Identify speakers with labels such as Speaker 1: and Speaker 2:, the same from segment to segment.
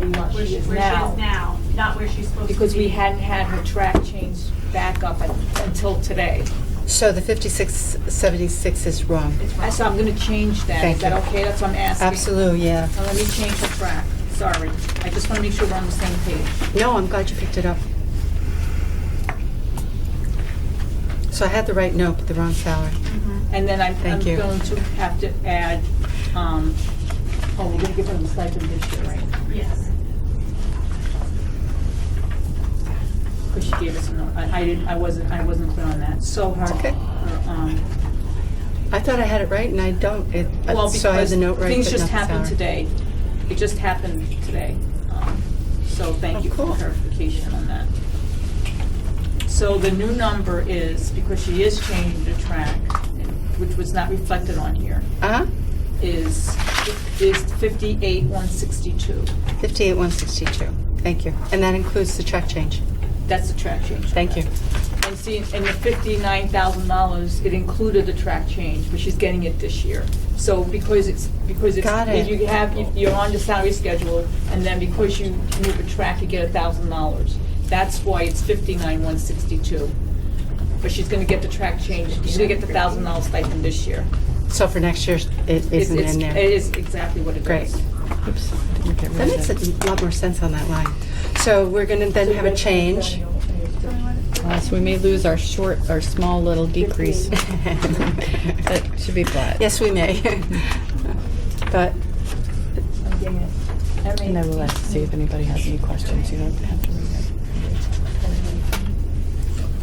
Speaker 1: she is
Speaker 2: where she
Speaker 1: now.
Speaker 2: is now, not where she's supposed to be.
Speaker 1: Because we hadn't had her track changed back up un- until today.
Speaker 3: So the 5676 is wrong.
Speaker 2: It's
Speaker 1: Uh,
Speaker 2: wrong.
Speaker 1: So I'm gonna change that. Is
Speaker 3: Thank
Speaker 1: that
Speaker 3: you.
Speaker 1: okay? That's what I'm asking.
Speaker 3: Absolutely, yeah.
Speaker 1: Now let me change the track. Sorry. I just wanna make sure we're on the same page.
Speaker 3: No, I'm glad you picked it up. So I had the right note, but the wrong salary.
Speaker 2: Mhm.
Speaker 1: And then I'm, I'm
Speaker 3: Thank you.
Speaker 1: going to have to add, um, oh, we're gonna give her the stipend this year, right?
Speaker 2: Yes.
Speaker 1: Because she gave us a note. I I didn't, I wasn't, I wasn't clear on that. So her,
Speaker 3: It's okay.
Speaker 1: her, um,
Speaker 3: I thought I had it right, and I don't. It- uh,
Speaker 1: Well,
Speaker 3: So I had
Speaker 1: because
Speaker 3: the note right, but not the salary.
Speaker 1: things just happened today. It just happened today. Um, So thank
Speaker 3: Of
Speaker 1: you for the
Speaker 3: course.
Speaker 1: clarification on that. So the new number is, because she is changing the track, which was not reflected on here,
Speaker 3: Uh-huh,
Speaker 1: is, is fifty-eight, one sixty-two.
Speaker 3: 58162. Thank you. And that includes the track change.
Speaker 1: That's the track change.
Speaker 3: Thank you.
Speaker 1: And see, and the fifty-nine thousand dollars, it included the track change, but she's getting it this year. So because it's, because it's.
Speaker 3: Got it.
Speaker 1: If you have, if you're on the salary schedule, and then because you move a track, you get a thousand dollars. That's why it's fifty-nine, one sixty-two. But she's gonna get the track change, she's gonna get the thousand dollars stipend this year.
Speaker 3: So for next year, it
Speaker 1: It's-
Speaker 3: isn't
Speaker 1: it's-
Speaker 3: in
Speaker 1: It
Speaker 3: there.
Speaker 1: is exactly what it is.
Speaker 3: Great. That makes a lot more sense on that line. So we're going to then have a change.
Speaker 4: Uh, So we may lose our short, our small little decrease. That should be flat.
Speaker 3: Yes, we may. But
Speaker 4: Nevertheless, see if anybody has any questions. You don't have to read it.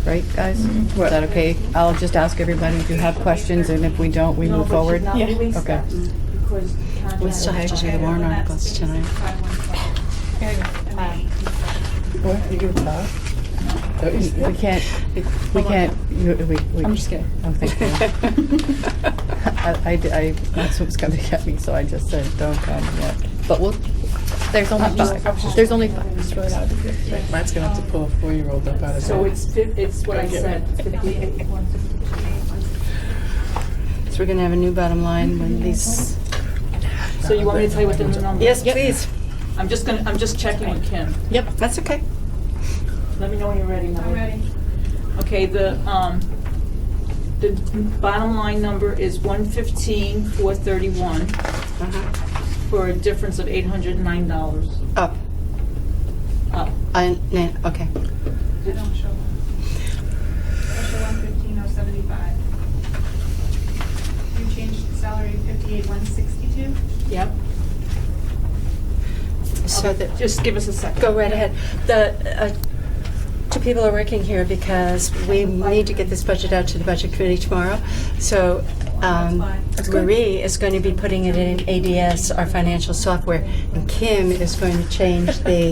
Speaker 4: Right, guys?
Speaker 1: Mm-hmm.
Speaker 4: Is that okay? I'll just ask everybody if you have questions, and if we don't, we move forward.
Speaker 1: No, but she's not released
Speaker 4: Okay.
Speaker 1: that because
Speaker 3: we still have to do the warrant articles tonight.
Speaker 4: We can't, we can't, you- we, we.
Speaker 1: I'm just kidding.
Speaker 4: Oh, thank you. I, I d- I- that's what was coming at me, so I just said, don't come yet. But we'll, there's only five. There's only five.
Speaker 5: Matt's gonna have to pull a four-year-old up out of
Speaker 1: So
Speaker 5: bed.
Speaker 1: it's, fif- it's what I
Speaker 5: Go get
Speaker 1: said, fifty-eight, one
Speaker 3: So we're going to have a new bottom line when these,
Speaker 1: So you want me to tell you what the new number
Speaker 3: yes,
Speaker 1: is?
Speaker 3: please.
Speaker 1: I'm just gonna, I'm just checking with Kim.
Speaker 4: Yep.
Speaker 3: That's okay.
Speaker 1: Let me know when you're ready, Molly.
Speaker 2: I'm ready.
Speaker 1: Okay, the, um, the bottom line number is one fifteen, four thirty-one,
Speaker 3: Uh-huh.
Speaker 1: for a difference of eight hundred and nine dollars.
Speaker 3: Up.
Speaker 1: Up.
Speaker 3: Oh, I- no, Okay.
Speaker 2: I don't show one. I show one fifteen oh seventy-five. You changed the salary fifty-eight one sixty-two?
Speaker 1: Yep.
Speaker 3: So that.
Speaker 1: Just give us a second.
Speaker 3: Go right ahead. The, uh, two people are working here because we need to get this budget out to the budget committee tomorrow. So um, Marie is going to be putting it in ADS, our financial software, and Kim is going to change the,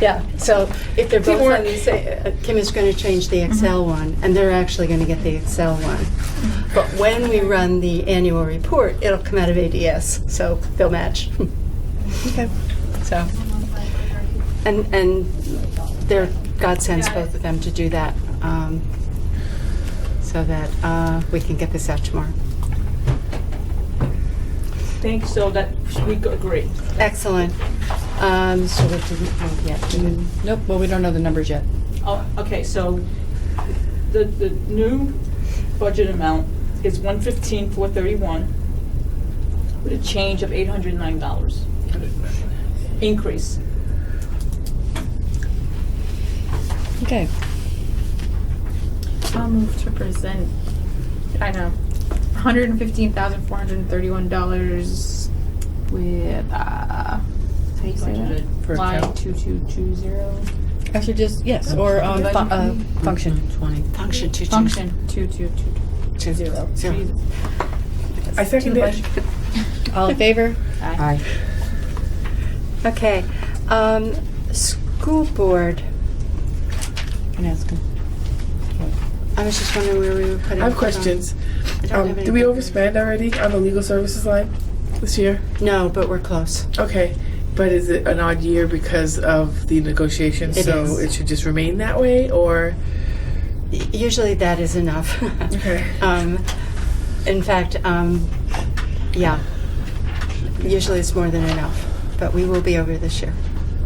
Speaker 3: yeah, so if they're both on the same, uh, Kim is going to change the Excel one, and they're actually going to get the Excel one. But when we run the annual report, it'll come out of ADS, so they'll match.
Speaker 4: Okay.
Speaker 3: So, and, and they're God sends both of them to do that, um, so that uh, we can get this out tomorrow.
Speaker 1: Thank, so that, we agree.
Speaker 3: Excellent. Um,
Speaker 4: So we didn't move yet. Nope, well, we don't know the numbers yet.
Speaker 1: Oh, okay, so the, the new budget amount is one fifteen, four thirty-one, with a change of eight hundred and nine dollars. Increase.
Speaker 4: Okay.
Speaker 6: I'll move to present, I know, hundred and fifteen thousand four hundred and thirty-one dollars with, uh, how do you say that?
Speaker 5: Per
Speaker 6: Line
Speaker 5: account.
Speaker 6: two two two zero,
Speaker 4: Actually, just, yes, or um, fu- uh, function.
Speaker 3: function two two.
Speaker 6: function two two two
Speaker 3: two
Speaker 6: zero.
Speaker 3: zero.
Speaker 5: I second it.
Speaker 4: All in favor? Aye.
Speaker 3: Okay. Um, school board.
Speaker 4: Can ask him.
Speaker 3: I was just wondering where we were
Speaker 5: I
Speaker 3: putting.
Speaker 5: have questions.
Speaker 3: I don't
Speaker 5: Um,
Speaker 3: have
Speaker 5: do we
Speaker 3: any-
Speaker 5: overspend already on the legal services line this year?
Speaker 3: No, but we're close.
Speaker 5: Okay, but is it an odd year because of the negotiations?
Speaker 3: It
Speaker 5: So
Speaker 3: is.
Speaker 5: it should just remain that way, or?
Speaker 3: Y- Usually that is enough.
Speaker 5: Okay.
Speaker 3: Um, in fact, um, yeah. Usually it's more than enough, but we will be over this year.